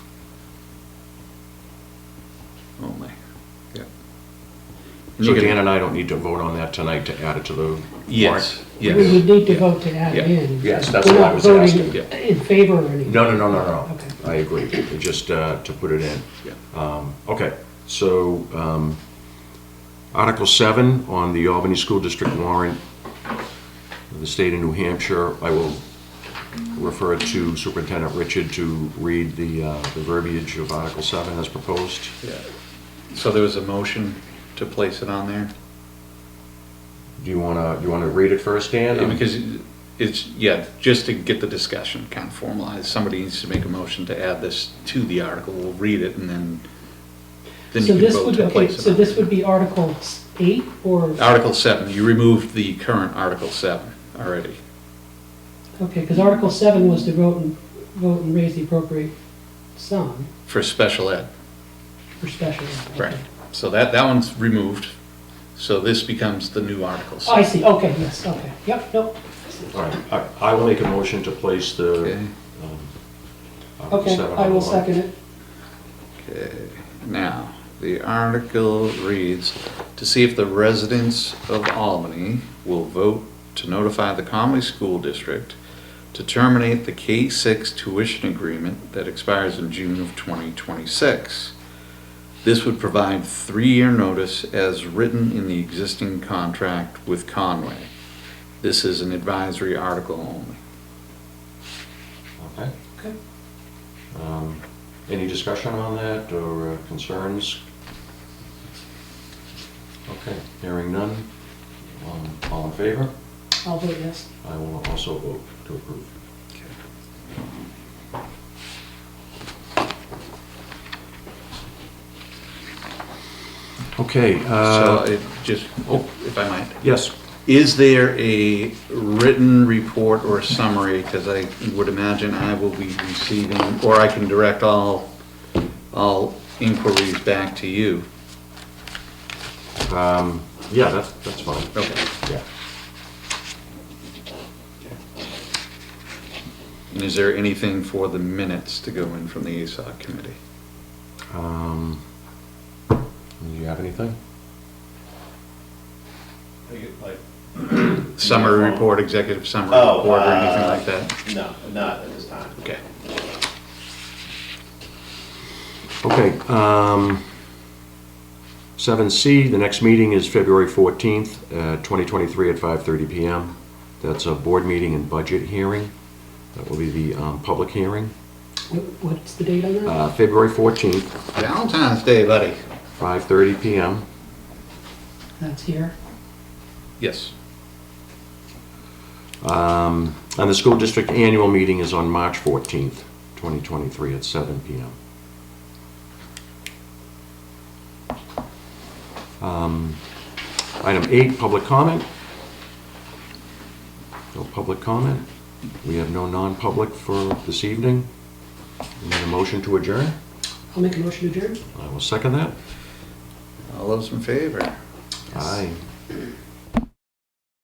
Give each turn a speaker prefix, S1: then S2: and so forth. S1: So Dan and I don't need to vote on that tonight to add it to the
S2: Yes,
S1: warrant?
S2: yes.
S3: We would need to
S1: Yeah.
S3: vote to add
S1: Yeah.
S3: in.
S1: Yes, that's what I was
S3: We're not
S1: asking.
S3: voting
S1: Yeah.
S3: In favor or anything.
S1: No, no, no, no, no.
S3: Okay.
S1: I agree. Just uh, to put it in.
S2: Yeah.
S1: Um, Okay, so um, Article 7 on the Albany School District warrant of the state of New Hampshire, I will refer to Superintendent Richard to read the uh, the verbiage of Article 7 as proposed.
S2: Yeah. So there was a motion to place it on there?
S1: Do you want to, you want to read it first, Dan?
S2: Yeah, Because it's, yeah, just to get the discussion kind of formalized, somebody needs to make a motion to add this to the article, we'll read it and then, then
S3: So
S2: you can
S3: this
S2: vote
S3: would,
S2: to
S3: okay,
S2: place it
S3: so
S2: on.
S3: this would be Article s- eight or,
S2: Article seven, you removed the current article seven already.
S3: okay, because Article seven was to vote and, vote and raise the appropriate sum
S2: for special ed.
S3: for special. ed.
S2: Right. So that, that one's removed, so this becomes the new article.
S3: Oh, I see, okay, yes, okay, yep, nope.
S1: All right, I- I will make a motion to place the
S2: Okay,
S1: Article
S3: Okay,
S1: 7 on
S3: I will
S1: the warrant.
S3: second it.
S2: okay. Now, the article reads, to see if the residents of Albany will vote to notify the Conway School District to terminate the K-6 tuition agreement that expires in June of 2026. This would provide three-year notice as written in the existing contract with Conway. This is an advisory article only.
S1: Okay.
S3: Okay.
S1: Um, Any discussion on that or uh, concerns? Okay, hearing none. Um, All in favor?
S3: I'll vote yes.
S1: I will also vote to approve. Okay,
S2: So
S1: uh,
S2: it just, oh, if I might,
S1: yes,
S2: is there a written report or summary? Because I would imagine I will be receiving, or I can direct all, all inquiries back to you.
S1: um, yeah, that's, that's fine.
S2: Okay.
S1: Yeah.
S2: And is there anything for the minutes to go in from the ASOC committee?
S1: Um, Do you have anything?
S4: Like,
S2: Summary report, executive summary
S4: Oh,
S2: report, or anything
S4: uh,
S2: like that?
S4: no, not at this time.
S2: Okay.
S1: Okay, um, seven C, the next meeting is February fourteenth, uh, twenty twenty-three at five thirty PM. That's a board meeting and budget hearing. That will be the, um, public hearing,
S3: Wh- What's the date on that?
S1: uh, February fourteenth,
S2: Valentine's Day, buddy.
S1: five thirty PM.
S3: That's here.
S2: Yes.
S1: Um, and the school district annual meeting is on March fourteenth, twenty twenty-three at seven PM. Um, Item eight, public comment. No public comment. We have no non-public for this evening. We Need a motion to adjourn?
S3: I'll make a motion to adjourn.
S1: I will second that.
S2: All those in favor?
S1: Aye.